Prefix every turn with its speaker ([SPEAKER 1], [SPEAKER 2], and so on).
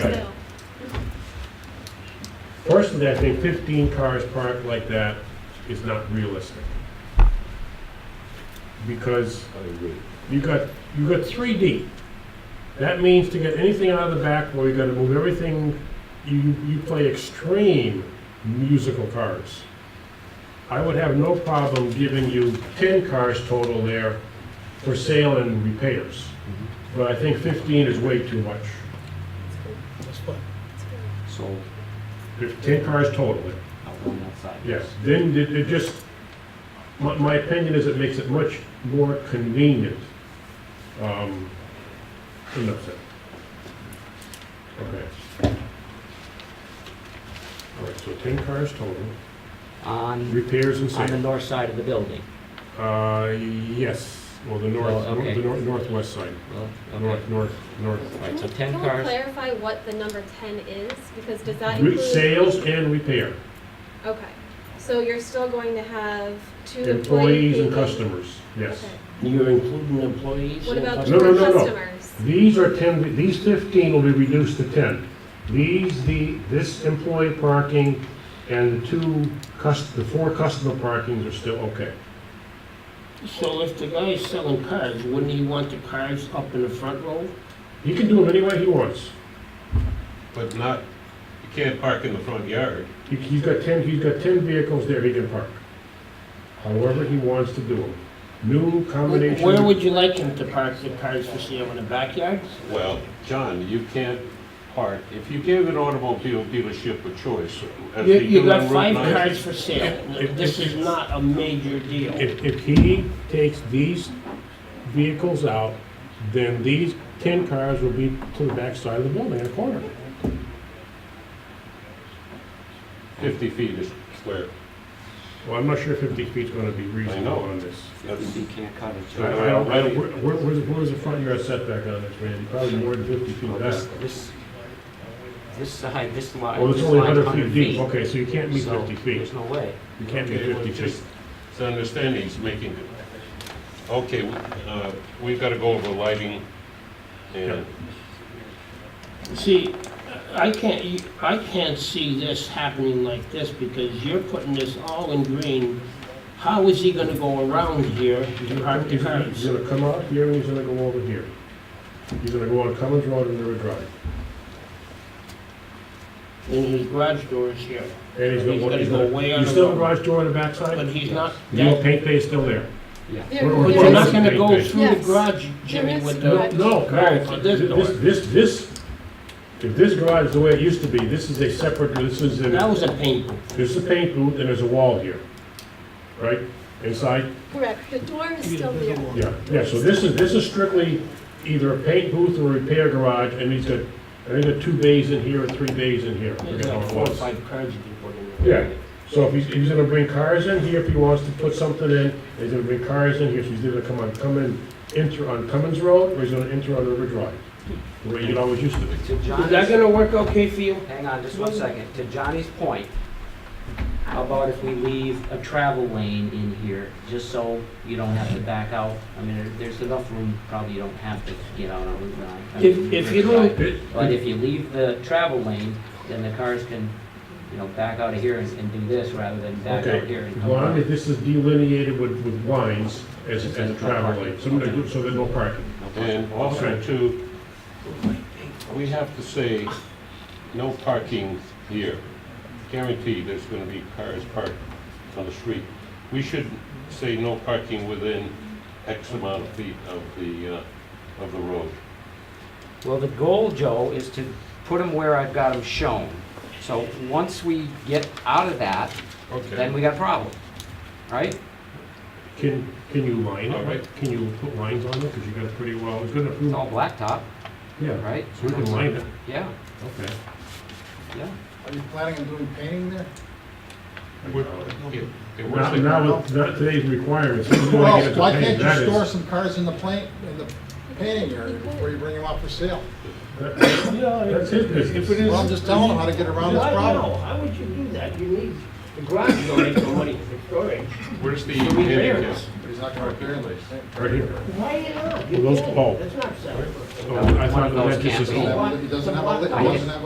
[SPEAKER 1] Personally, I think 15 cars parked like that is not realistic. Because
[SPEAKER 2] I agree.
[SPEAKER 1] you got, you got three deep. That means to get anything out of the back, well, you gotta move everything, you, you play extreme musical cars. I would have no problem giving you ten cars total there for sale and repairs.
[SPEAKER 2] Mm-hmm.
[SPEAKER 1] But I think fifteen is way too much.
[SPEAKER 3] That's fine.
[SPEAKER 4] sold
[SPEAKER 1] There's ten cars total there.
[SPEAKER 4] out on that side.
[SPEAKER 1] Yes, then it, it just, my, my opinion is it makes it much more convenient. Um, enough said. Okay. All right, so ten cars total,
[SPEAKER 4] On,
[SPEAKER 1] repairs and
[SPEAKER 4] on the
[SPEAKER 1] sale.
[SPEAKER 4] north side of the building.
[SPEAKER 1] Uh, yes, well, the north,
[SPEAKER 4] Well, okay.
[SPEAKER 1] the nor- northwest side,
[SPEAKER 4] Well, okay.
[SPEAKER 1] north, north, north.
[SPEAKER 4] All right, so
[SPEAKER 5] Can
[SPEAKER 4] 10
[SPEAKER 5] we
[SPEAKER 4] cars,
[SPEAKER 5] clarify what the number 10 is? Because does that
[SPEAKER 1] Re-
[SPEAKER 5] include?
[SPEAKER 1] Sales and repair,
[SPEAKER 5] Okay, so you're still going to have two employees?
[SPEAKER 1] employees and customers, yes.
[SPEAKER 2] You're including employees?
[SPEAKER 5] What
[SPEAKER 2] in
[SPEAKER 5] about
[SPEAKER 1] No,
[SPEAKER 2] customer-
[SPEAKER 1] no,
[SPEAKER 5] current
[SPEAKER 1] no, no.
[SPEAKER 5] customers?
[SPEAKER 1] These are 10, these 15 will be reduced to 10. These, the, this employee parking and the two, cus- the four customer parkings are still okay.
[SPEAKER 2] So if the guy's selling cars, wouldn't he want the cars up in the front row?
[SPEAKER 1] He can do them any way he wants.
[SPEAKER 6] But not, you can't park in the front yard.
[SPEAKER 1] He- He's got 10, he's got 10 vehicles there he can park. However he wants to do them. New combination.
[SPEAKER 2] Where would you like him to park the cars for sale, in the backyard?
[SPEAKER 6] Well, John, you can't park, if you gave an automobile dealership a choice. as
[SPEAKER 2] You,
[SPEAKER 6] they
[SPEAKER 2] you
[SPEAKER 6] do
[SPEAKER 2] got
[SPEAKER 6] on Route
[SPEAKER 2] five
[SPEAKER 6] 9,
[SPEAKER 2] cars for sale. This is not a major deal.
[SPEAKER 1] If, if he takes these vehicles out, then these 10 cars will be to the back side of the building in a corner.
[SPEAKER 6] Fifty feet is square.
[SPEAKER 1] Well, I'm not sure 50 feet's gonna be
[SPEAKER 6] know.
[SPEAKER 1] reasonable on this.
[SPEAKER 6] That's-
[SPEAKER 4] you can't cut it.
[SPEAKER 1] I I don't, I don't, where, where- where's, where's the front yard setback on this, Randy? Probably more than fifty feet
[SPEAKER 4] Well,
[SPEAKER 1] back.
[SPEAKER 4] This, this, this side, this line.
[SPEAKER 1] Oh, it's
[SPEAKER 4] this
[SPEAKER 1] only
[SPEAKER 4] line's
[SPEAKER 1] hundred feet deep, okay, so you can't meet
[SPEAKER 4] so
[SPEAKER 1] fifty feet,
[SPEAKER 4] There's no way.
[SPEAKER 1] you can't meet
[SPEAKER 6] Okay, well,
[SPEAKER 1] fifty feet.
[SPEAKER 6] just- It's understanding, he's making, okay, we- uh, we've got to go over lighting and
[SPEAKER 2] See, I can't, e, I can't see this happening like this because you're putting this all in green. How is he gonna go around here to park the
[SPEAKER 1] He's gonna-
[SPEAKER 2] cars?
[SPEAKER 1] He's gonna come out here and he's gonna go over here. He's gonna go on Cummins Road and River Drive,
[SPEAKER 2] And his garage door is here.
[SPEAKER 1] and he's gonna.
[SPEAKER 2] He's gotta
[SPEAKER 1] he's
[SPEAKER 2] go
[SPEAKER 1] gonna-
[SPEAKER 2] way on
[SPEAKER 1] You
[SPEAKER 2] the
[SPEAKER 1] still have a
[SPEAKER 2] road.
[SPEAKER 1] garage door on the
[SPEAKER 2] But
[SPEAKER 1] backside?
[SPEAKER 2] he's not,
[SPEAKER 1] Your
[SPEAKER 2] that,
[SPEAKER 1] paint bay's still there.
[SPEAKER 5] There-
[SPEAKER 1] We're- we're
[SPEAKER 5] there
[SPEAKER 2] we're
[SPEAKER 5] is-
[SPEAKER 2] not gonna go through the
[SPEAKER 5] Yes.
[SPEAKER 2] garage,
[SPEAKER 5] There
[SPEAKER 2] Jimmy,
[SPEAKER 5] is
[SPEAKER 2] with
[SPEAKER 1] No,
[SPEAKER 2] the,
[SPEAKER 5] garage.
[SPEAKER 1] no,
[SPEAKER 2] Right,
[SPEAKER 1] no,
[SPEAKER 2] but
[SPEAKER 1] this,
[SPEAKER 2] this door.
[SPEAKER 1] this, this, if this garage is the way it used to be, this is a separate, this is an
[SPEAKER 2] that was a pain.
[SPEAKER 1] There's a paint booth and there's a wall here, right, inside?
[SPEAKER 5] Correct, the door is still there.
[SPEAKER 1] Yeah, yeah, so this is, this is strictly either a paint booth or a repair garage, and he's got, I think there are two bays in here and three bays in here. I
[SPEAKER 2] There's
[SPEAKER 1] forget how
[SPEAKER 2] like
[SPEAKER 1] it
[SPEAKER 2] four or
[SPEAKER 1] was.
[SPEAKER 2] five cars you can put in there.
[SPEAKER 1] Yeah. So if he's, he's gonna bring cars in here if he wants to put something in, he's gonna bring cars in here, so he's either gonna come on, come in, enter on Cummins Road, or he's gonna enter on River Drive, the way it always used to be.
[SPEAKER 4] To
[SPEAKER 2] Is that
[SPEAKER 4] Johnny's,
[SPEAKER 2] gonna work okay for you?
[SPEAKER 4] hang on just one second. To Johnny's point, how about if we leave a travel lane in here, just so you don't have to back out? I mean, there- there's enough room, probably you don't have to get out on Route 9. I
[SPEAKER 2] If,
[SPEAKER 4] mean,
[SPEAKER 2] if you
[SPEAKER 4] Riverside.
[SPEAKER 2] don't,
[SPEAKER 4] But if you leave the travel lane, then the cars can, you know, back out of here and, and do this rather than back out here
[SPEAKER 1] Okay,
[SPEAKER 4] and
[SPEAKER 1] as
[SPEAKER 4] come
[SPEAKER 1] long
[SPEAKER 4] around.
[SPEAKER 1] as this is delineated with, with lines as, as a travel lane, so, so there's no parking.
[SPEAKER 6] And also too, we have to say, no parking here. Guaranteed, there's gonna be cars parked on the street. We should say no parking within X amount of feet of the, uh, of the road.
[SPEAKER 4] Well, the goal, Joe, is to put them where I've got them shown. So once we get out of that, then we got a problem, right?
[SPEAKER 1] Can, can you line
[SPEAKER 6] All
[SPEAKER 1] it?
[SPEAKER 6] right.
[SPEAKER 1] Can you put lines on it? Because you got it pretty well, it's gonna
[SPEAKER 4] It's
[SPEAKER 1] approve.
[SPEAKER 4] all blacktop,
[SPEAKER 1] Yeah,
[SPEAKER 4] right?
[SPEAKER 1] so we can line it,
[SPEAKER 4] Yeah,
[SPEAKER 1] okay.
[SPEAKER 4] yeah.
[SPEAKER 3] Are you planning on doing painting there?
[SPEAKER 6] We're- it- it was
[SPEAKER 1] Not,
[SPEAKER 6] a-
[SPEAKER 1] not with, not today's requirements. He's gonna get it
[SPEAKER 3] Well,
[SPEAKER 1] to
[SPEAKER 3] why
[SPEAKER 1] pay.
[SPEAKER 3] can't
[SPEAKER 1] That
[SPEAKER 3] you
[SPEAKER 1] is-
[SPEAKER 3] store some cars in the plant, in the painting area before you bring them out for sale?
[SPEAKER 1] that- That's his business. If it
[SPEAKER 3] Well, I'm just telling them how to get around this
[SPEAKER 2] Why, no,
[SPEAKER 3] problem.
[SPEAKER 2] how would you do that? You need, the garage door ain't no money for storage.
[SPEAKER 6] Where's the
[SPEAKER 2] The
[SPEAKER 6] handicap?
[SPEAKER 2] repairs.
[SPEAKER 3] But he's not gonna repair them.
[SPEAKER 1] Right here.
[SPEAKER 2] Why you not?
[SPEAKER 1] Well,
[SPEAKER 2] You
[SPEAKER 1] those-
[SPEAKER 2] can't.
[SPEAKER 1] oh.
[SPEAKER 2] That's not selling.
[SPEAKER 1] Oh, I thought that just is all.
[SPEAKER 3] He doesn't have a, li- he doesn't have a